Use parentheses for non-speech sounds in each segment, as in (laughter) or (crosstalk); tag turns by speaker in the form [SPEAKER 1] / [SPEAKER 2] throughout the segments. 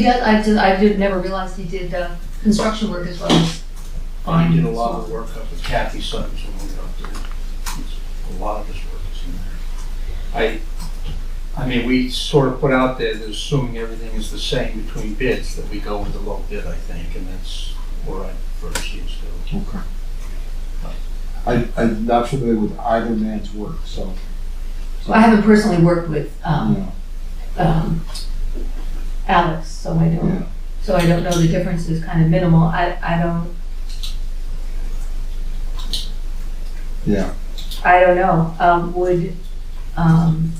[SPEAKER 1] Yeah, I just, I did, never realized he did, uh, construction work as well as.
[SPEAKER 2] I did a lot of work up with Kathy Sutton, so we went up there. It's- A lot of his work is in there. I, I mean, we sort of put out there that assuming everything is the same between bids, that we go with the low bid, I think, and that's where I first used to.
[SPEAKER 3] Okay. I, I'm not familiar with either man's work, so. so,
[SPEAKER 1] I haven't personally worked with, um,
[SPEAKER 3] yeah,
[SPEAKER 1] um, Alex, so I
[SPEAKER 3] yeah.
[SPEAKER 1] don't, so I don't know, the difference is kind of minimal, I, I don't,
[SPEAKER 3] Yeah,
[SPEAKER 1] I don't know, um, would, um,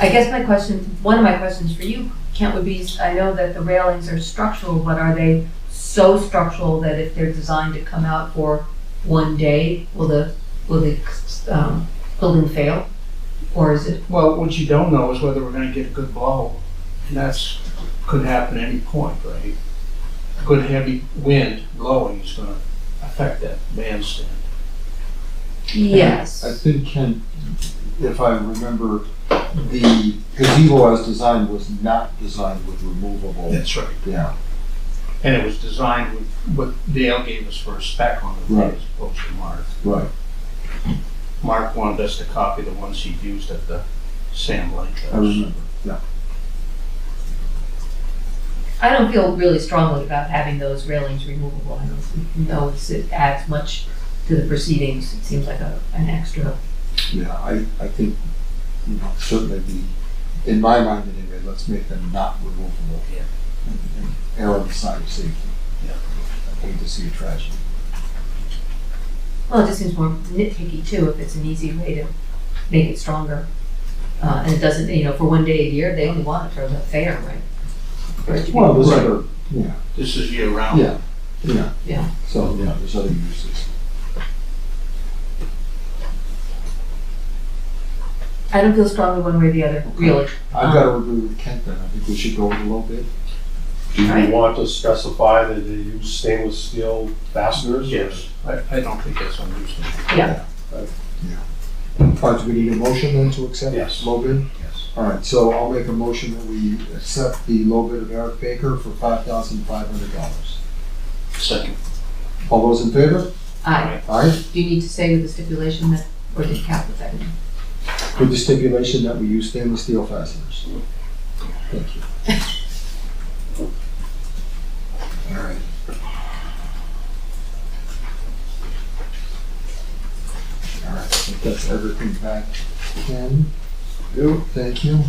[SPEAKER 1] I guess my question, one of my questions for you, Kent, would be, I know that the railings are structural, but are they so structural that if they're designed to come out for one day, will the, will the, um, building fail? Or is it,
[SPEAKER 2] Well, what you don't know is whether we're gonna get a good blow, and that's, could happen at any point, right? Good heavy wind blowing is gonna affect that bandstand.
[SPEAKER 1] yes.
[SPEAKER 3] I think Ken, if I remember, the gazebo as designed was not designed with removable.
[SPEAKER 2] right.
[SPEAKER 3] Yeah,
[SPEAKER 2] And it was designed with what Dale gave us for a spec on the
[SPEAKER 3] Right.
[SPEAKER 2] as opposed to Mark.
[SPEAKER 3] right.
[SPEAKER 2] Mark wanted us to copy the ones he used at the Sam Lake.
[SPEAKER 3] I remember. Yeah.
[SPEAKER 1] I don't feel really strongly about having those railings removable. I don't know if it adds much to the proceedings. It seems like a, an extra.
[SPEAKER 3] Yeah, I, I think, you know, certainly the, in my mind anyway, let's make them not removable.
[SPEAKER 2] Yeah.
[SPEAKER 3] And- and Err on the side of safety.
[SPEAKER 2] Yeah.
[SPEAKER 3] I hate to see a tragedy.
[SPEAKER 1] Well, it just seems more nitpicky too, if it's an easy way to make it stronger. Uh, and it doesn't, you know, for one day a year, they only want it for the fair, right? Right.
[SPEAKER 3] Well, there's
[SPEAKER 2] Right.
[SPEAKER 3] other, yeah,
[SPEAKER 2] This is year round.
[SPEAKER 3] yeah, yeah.
[SPEAKER 1] Yeah.
[SPEAKER 3] So, yeah, there's other uses.
[SPEAKER 1] I don't feel strongly one way or the other, really.
[SPEAKER 3] I've got to agree with Kent then. I think we should go with a little bit.
[SPEAKER 4] Do
[SPEAKER 1] Right.
[SPEAKER 4] we want to specify that they use stainless steel fasteners?
[SPEAKER 2] Yes, I, I don't think that's unreasonable.
[SPEAKER 1] Yeah.
[SPEAKER 3] All right, do we need a motion then to accept
[SPEAKER 4] Yes.
[SPEAKER 3] low bid?
[SPEAKER 2] Yes.
[SPEAKER 3] All right, so I'll make a motion that we accept the low bid of Eric Baker for five thousand five hundred dollars.
[SPEAKER 2] Second.
[SPEAKER 3] All those in favor?
[SPEAKER 1] I,
[SPEAKER 3] Aye,
[SPEAKER 1] do you need to say with the stipulation that, or did Cap with that?
[SPEAKER 3] with the stipulation that we use stainless steel fasteners. Thank you. All right. All right, I think that's everything back. Ken? You. Thank you.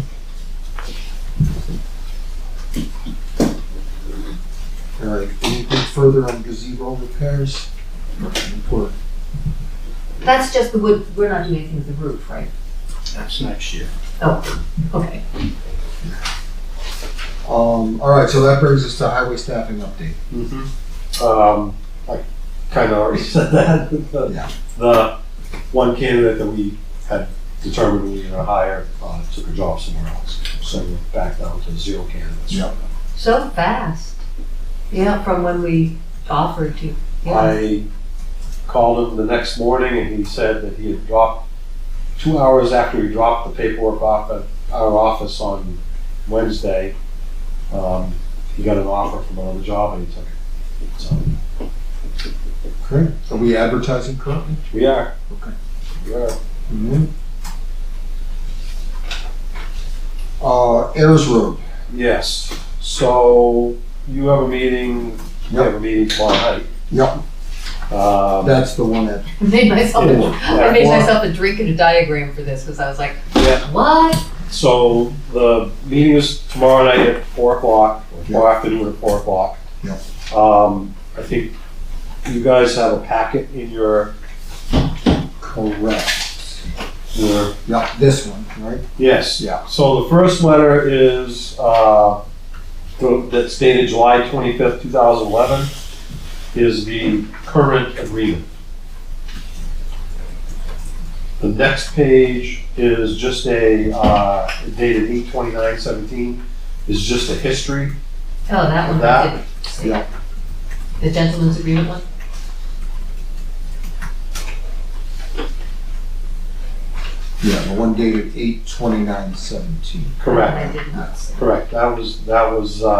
[SPEAKER 3] All right, anything further on gazebo repairs? Report.
[SPEAKER 1] That's just the wood, we're not doing anything with the roof, right?
[SPEAKER 2] That's next year.
[SPEAKER 1] Oh, okay.
[SPEAKER 3] Um, all right, so that brings us to highway staffing update.
[SPEAKER 4] Um, I kind of already (laughs) said that. The-
[SPEAKER 3] Yeah.
[SPEAKER 4] The one candidate that we had determined we were gonna hire, uh, took a job somewhere else. So we're back down to zero candidates.
[SPEAKER 3] Yeah.
[SPEAKER 1] So fast. Yeah, from when we offered to. Yeah.
[SPEAKER 4] I called him the next morning and he said that he had dropped, two hours after he dropped the paperwork off at our office on Wednesday, um, he got an offer from another job and he took it. So,
[SPEAKER 3] Correct. Are we advertising currently?
[SPEAKER 4] we are.
[SPEAKER 3] Okay.
[SPEAKER 4] We are.
[SPEAKER 3] Mm-hmm. Uh, Ayers Road.
[SPEAKER 4] Yes, so you have a meeting, you have a meeting tomorrow
[SPEAKER 3] Yep,
[SPEAKER 4] night. Um,
[SPEAKER 3] that's the one that,
[SPEAKER 1] (laughs) I made myself, a- I made
[SPEAKER 4] Yeah.
[SPEAKER 1] myself a drink and a diagram for this because I was like,
[SPEAKER 4] Yeah.
[SPEAKER 1] what?
[SPEAKER 4] so the meeting is tomorrow night at four o'clock, or tomorrow afternoon at four o'clock.
[SPEAKER 3] Yep.
[SPEAKER 4] Um, I think you guys have a packet in your,
[SPEAKER 3] correct.
[SPEAKER 4] your,
[SPEAKER 3] Yep, this one, right?
[SPEAKER 4] yes.
[SPEAKER 3] Yeah.
[SPEAKER 4] So the first letter is, uh, th- that's dated July twenty-fifth, two thousand eleven, is the current agreement. The next page is just a, uh, dated eight twenty-nine seventeen, is just a history.
[SPEAKER 1] Oh, that one.
[SPEAKER 4] That-
[SPEAKER 1] I didn't see.
[SPEAKER 3] Yeah.
[SPEAKER 1] The gentleman's agreement one?
[SPEAKER 3] Yeah, the one dated eight twenty-nine seventeen.
[SPEAKER 1] I did not see.
[SPEAKER 4] Correct, that was, that was, uh,